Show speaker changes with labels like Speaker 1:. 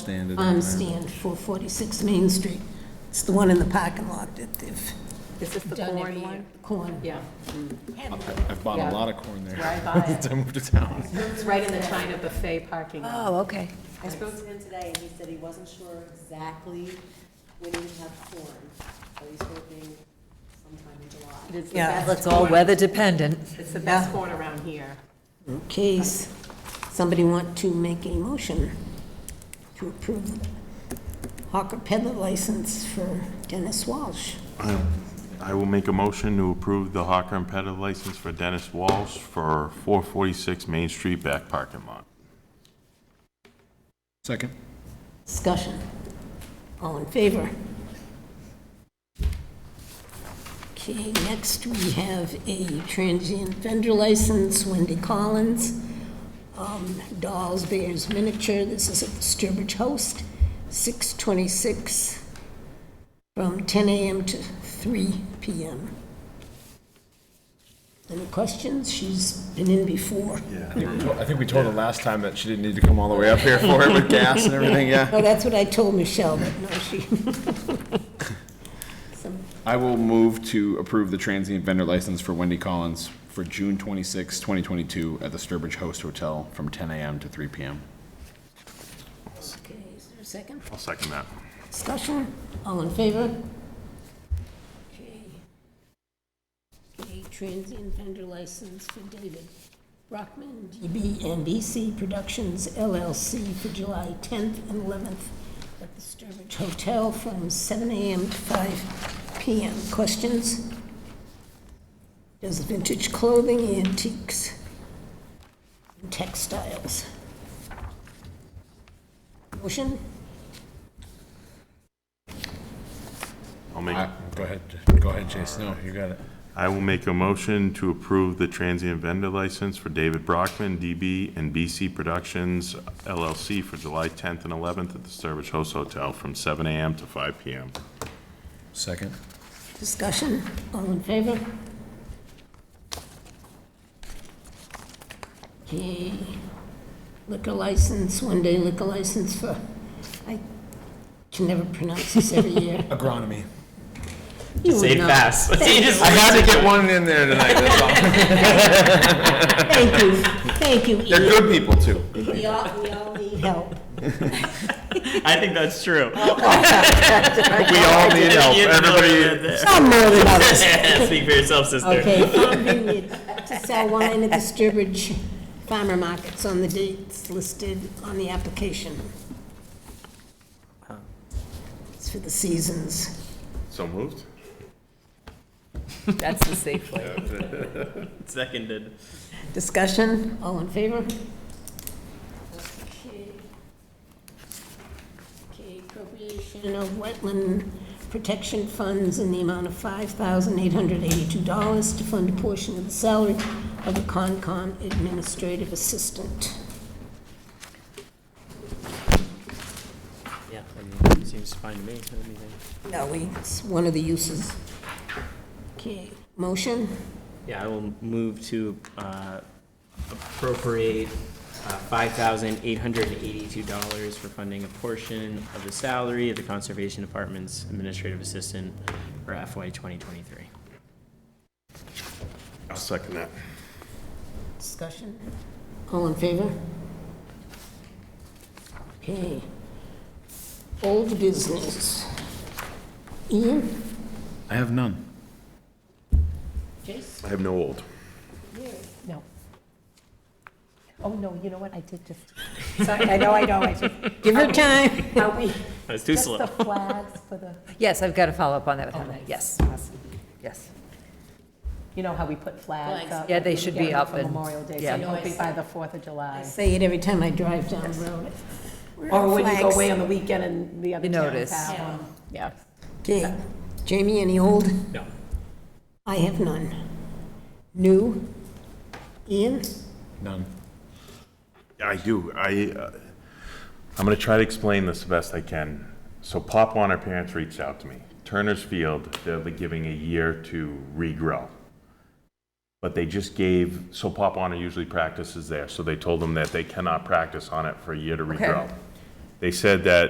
Speaker 1: Standard.
Speaker 2: um, stand for 46 Main Street. It's the one in the parking lot that they've
Speaker 3: Is this the
Speaker 2: done every
Speaker 3: corn
Speaker 2: year.
Speaker 3: one?
Speaker 2: Corn.
Speaker 3: Yeah,
Speaker 1: I've bought
Speaker 3: Yeah.
Speaker 1: a lot of corn there.
Speaker 3: Right by it.
Speaker 1: Since I moved to town.
Speaker 3: it's right in the China buffet parking lot.
Speaker 4: Oh, okay.
Speaker 5: I spoke to him today, and he said he wasn't sure exactly when he would have corn, but he's hoping sometime in
Speaker 3: It
Speaker 5: July.
Speaker 3: is the
Speaker 2: Yeah,
Speaker 3: best
Speaker 4: That's all
Speaker 3: corn-
Speaker 4: weather dependent.
Speaker 3: It's the best corn around here.
Speaker 2: Case, somebody want to make a motion to approve the hawker peddler license for Dennis Walsh.
Speaker 6: I- I will make a motion to approve the hawker and peddler license for Dennis Walsh for 446 Main Street back parking lot.
Speaker 1: Second.
Speaker 2: Discussion. All in favor? Okay, next we have a transient vendor license, Wendy Collins, um, Dolls Bears Miniature, this is at the Sturbridge Host, 626, from 10 a.m. to 3 p.m. Any questions? She's been in before.
Speaker 1: I think we told- I think we told her last time that she didn't need to come all the way up here for it with gas and everything, yeah.
Speaker 2: No, Oh, that's what I told Michelle, but no, she... Some
Speaker 1: I will move to approve the transient vendor license for Wendy Collins for June 26, 2022 at the Sturbridge Host Hotel from 10 a.m. to 3 p.m.
Speaker 2: Okay, is there a second?
Speaker 6: I'll second that.
Speaker 2: Discussion, all in favor? Okay. Okay, transient vendor license for David Brockman, DB and BC Productions LLC for July 10th and 11th at the Sturbridge Hotel from 7 AM to 5 PM. Questions? Does vintage clothing, antiques, and textiles. Motion?
Speaker 6: I'll make,
Speaker 1: Uh, Go ahead, go ahead, Jason. No, you got it.
Speaker 6: I will make a motion to approve the transient vendor license for David Brockman, DB, and BC Productions LLC for July 10th and 11th at the Sturbridge Host Hotel from 7 a.m. to 5 p.m.
Speaker 1: Second.
Speaker 2: Discussion, all in favor? Okay, liquor license, one day liquor license for, I can never pronounce this every year.
Speaker 1: Agronomy.
Speaker 2: You would
Speaker 7: Say it
Speaker 2: know.
Speaker 7: fast. So you just-
Speaker 1: I had to get one in there tonight, that's all.
Speaker 2: Thank you, thank you,
Speaker 1: They're
Speaker 2: Ian.
Speaker 1: good people, too.
Speaker 2: We all, we all need help.
Speaker 7: I think that's true.
Speaker 6: We all need help,
Speaker 7: You know
Speaker 6: everybody.
Speaker 7: that.
Speaker 2: Some more than others.
Speaker 7: Speak for yourself, sister.
Speaker 2: Okay, Farm Vineyard to sell wine at the Sturbridge Farmer Markets on the dates listed on the application. It's for the seasons.
Speaker 6: So moved?
Speaker 4: That's the safe way.
Speaker 7: Seconded.
Speaker 2: Discussion, all in favor? Okay, Okay. appropriation of wetland protection funds in the amount of $5,882 to fund a portion of the salary of the Concom administrative assistant.
Speaker 7: Yeah, seems fine to me.
Speaker 2: No, we, it's one of the uses. Okay, motion,
Speaker 7: Yeah, I will move to uh, appropriate uh, $5,882 for funding a portion of the salary of the Conservation Department's Administrative Assistant for FY 2023.
Speaker 6: I'll second that.
Speaker 2: discussion, all in favor? Okay. Old business. Ian?
Speaker 1: I have none.
Speaker 2: Jason?
Speaker 6: I have no old.
Speaker 4: No. Oh, no, you know what? I did just, sorry, I know, I know, I just.
Speaker 2: Give her time.
Speaker 4: Are we,
Speaker 7: That was too slow.
Speaker 4: flags for the? Yes, I've got to follow up on that with Heather. Yes, yes.
Speaker 3: You know how we put flags up?
Speaker 4: Yeah, they should be
Speaker 3: Yeah,
Speaker 4: up
Speaker 3: for
Speaker 4: and-
Speaker 3: Memorial Day,
Speaker 4: yeah.
Speaker 3: so hopefully by the 4th of July.
Speaker 2: Say it every time I drive down the road.
Speaker 3: Or when you go away on the weekend and the other
Speaker 4: You
Speaker 3: towns
Speaker 4: notice.
Speaker 3: have them. Yeah.
Speaker 2: Okay, Jamie, any old?
Speaker 7: No.
Speaker 2: I have none. New? Ian?
Speaker 1: None.
Speaker 6: I do. I, uh, I'm going to try to explain this the best I can. So Pop Warner parents reached out to me. Turner's Field, they're giving a year to regrow. But they just gave, so Pop Warner usually practices there, so they told them that they cannot practice on it for a year to regrow. They said that